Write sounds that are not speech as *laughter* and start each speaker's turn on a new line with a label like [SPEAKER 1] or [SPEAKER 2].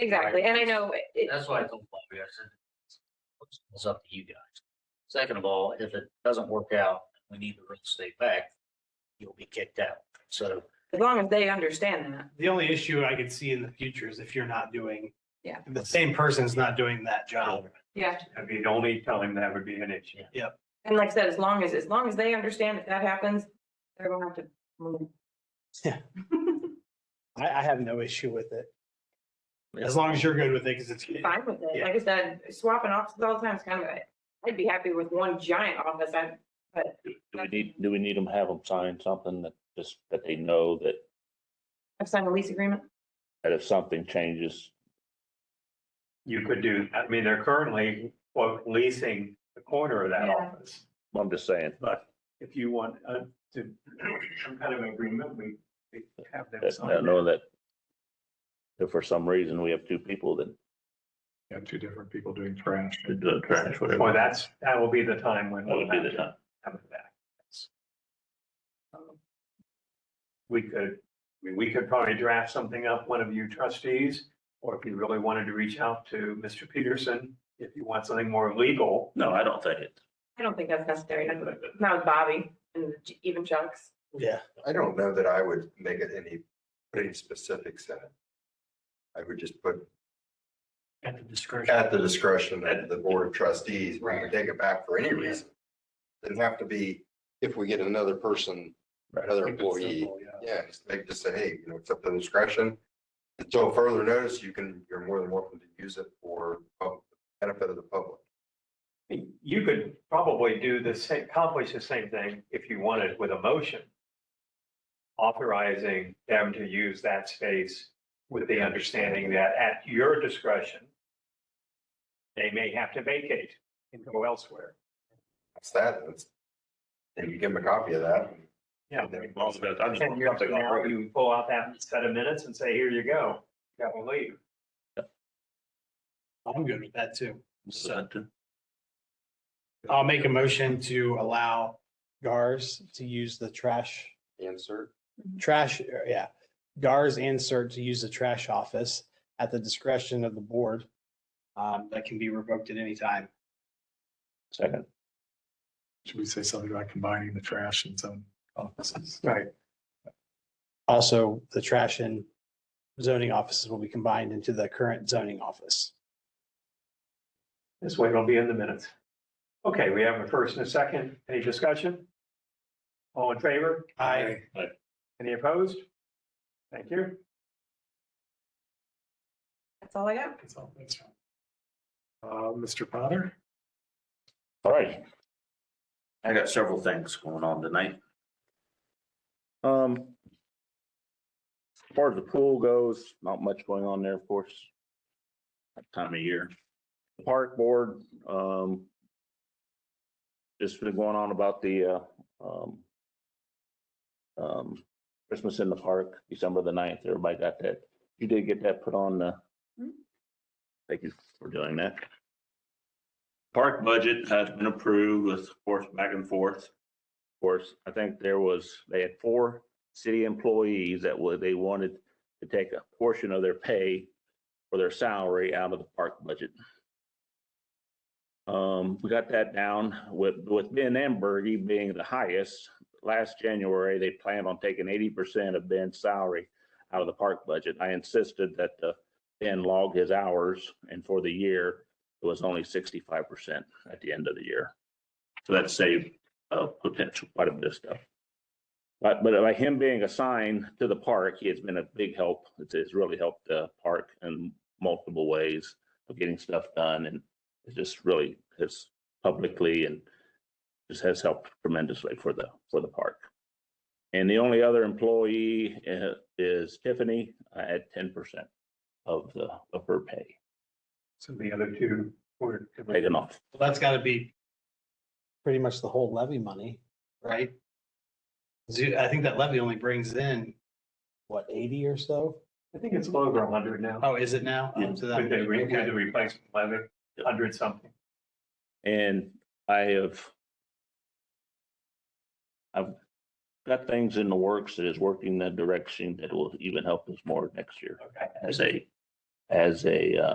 [SPEAKER 1] Exactly, and I know it- it,
[SPEAKER 2] That's why I told Bobby, I said, it's up to you guys. Second of all, if it doesn't work out, we need the real estate back, you'll be kicked out. So
[SPEAKER 1] as long as they understand that,
[SPEAKER 3] The only issue I could see in the future is if you're not doing.
[SPEAKER 1] Yeah.
[SPEAKER 3] The same person's not doing that job.
[SPEAKER 1] yeah.
[SPEAKER 4] I mean, only telling that would be an issue.
[SPEAKER 1] And like I said, as long as, as long as they understand if that happens, they're gonna have to move. *laughs*
[SPEAKER 3] Yeah. I, I have no issue with it. As long as you're good with it, because it's,
[SPEAKER 1] Fine with it.
[SPEAKER 3] Yeah.
[SPEAKER 1] Like I said, swapping offices all the time is kind of, a- I'd be happy with one giant office. I,
[SPEAKER 5] Do we need, do we need them, have them sign something that just, that they know that,
[SPEAKER 1] I've signed a lease agreement.
[SPEAKER 5] that if something changes,
[SPEAKER 4] You could do, I mean, they're currently quote leasing the corner of that
[SPEAKER 1] Yeah.
[SPEAKER 4] office.
[SPEAKER 5] I'm just saying,
[SPEAKER 4] But if you want uh, to, some kind of agreement, we we have
[SPEAKER 5] that,
[SPEAKER 4] them
[SPEAKER 5] that
[SPEAKER 4] sign.
[SPEAKER 5] know that if for some reason we have two people that
[SPEAKER 6] Yeah, two different people doing trash.
[SPEAKER 5] do the trash, whatever.
[SPEAKER 4] Well, that's, that will be the time when.
[SPEAKER 5] That would be the
[SPEAKER 4] we'll
[SPEAKER 5] time.
[SPEAKER 4] have it back. That's- We could, I mean, we could probably draft something up, one of you trustees, or if you really wanted to reach out to Mr. Peterson, if you want something more legal.
[SPEAKER 5] No, I don't think it.
[SPEAKER 1] I don't think that's necessary. Not with Bobby and even Chuck's.
[SPEAKER 3] yeah,
[SPEAKER 7] I don't know that I would make it any, put any specifics in it. I would just put
[SPEAKER 3] at the discretion.
[SPEAKER 7] at the discretion of the board of trustees, we can take it back for any reason. Doesn't have to be if we get another person, another
[SPEAKER 4] Keep it
[SPEAKER 7] employee.
[SPEAKER 4] simple, yeah.
[SPEAKER 7] Yeah, just make, just say, hey, you know, it's up to the discretion. Until further notice, you can, you're more than welcome to use it for pub- benefit of the public.
[SPEAKER 4] You could probably do the same, accomplish the same thing if you wanted with a motion. Authorizing them to use that space with the understanding that at your discretion. They may have to vacate and go elsewhere.
[SPEAKER 7] That's that. That's, and you give them a copy of that.
[SPEAKER 4] Yeah.
[SPEAKER 7] And then-
[SPEAKER 4] Ten years from now, you pull out that set of minutes and say, here you go, that will leave.
[SPEAKER 3] I'm good with that too. So
[SPEAKER 5] So-
[SPEAKER 3] I'll make a motion to allow GARS to use the trash,
[SPEAKER 7] Insert.
[SPEAKER 3] trash, uh, yeah. GARS and CERT to use the trash office at the discretion of the board. Um, that can be revoked at any time.
[SPEAKER 5] Second,
[SPEAKER 6] Should we say something about combining the trash in some offices?
[SPEAKER 3] Right. Also, the trash and zoning offices will be combined into the current zoning office.
[SPEAKER 4] This way it'll be in the minutes. Okay, we have a first and a second. Any discussion? All in favor? Any opposed? Thank you.
[SPEAKER 1] That's all I got.
[SPEAKER 6] That's all, that's fine. Uh, Mr. Potter?
[SPEAKER 5] all right. I got several things going on tonight. Um, as far as the pool goes, not much going on there, of course. That Time of year. Park board, um, just been going on about the, uh, um, um, Christmas in the park, December the ninth, everybody got that. You did get that put on the, thank you for doing that. Park budget has been approved with, of course, back and forth. Of course, I think there was, they had four city employees that would, they wanted to take a portion of their pay or their salary out of the park budget. Um, we got that down with, with Ben Ambergy being the highest. Last January, they planned on taking eighty percent of Ben's salary out of the park budget. I insisted that, uh, Ben log his hours and for the year, it was only sixty-five percent at the end of the year. So that saved uh potential quite a bit of stuff. But but by him being assigned to the park, he has been a big help. It's it's really helped the park in multiple ways of getting stuff done and it just really has publicly and just has helped tremendously for the for the park. And the only other employee uh, is Tiffany uh, at ten percent of the of her pay
[SPEAKER 4] So the other two were.
[SPEAKER 5] taken off.
[SPEAKER 3] Well, that's gotta be pretty much the whole levy money, right? Zoo, I think that levy only brings in, what, eighty or so?
[SPEAKER 4] I think it's over a hundred now.
[SPEAKER 3] Oh, is it now? Oh, so that-
[SPEAKER 4] With the, re- with
[SPEAKER 3] okay.
[SPEAKER 4] the replacement levy, hundred something.
[SPEAKER 5] And I have. I've got things in the works that is working that direction that will even help us more next year
[SPEAKER 4] Okay.
[SPEAKER 5] as a, as a, uh,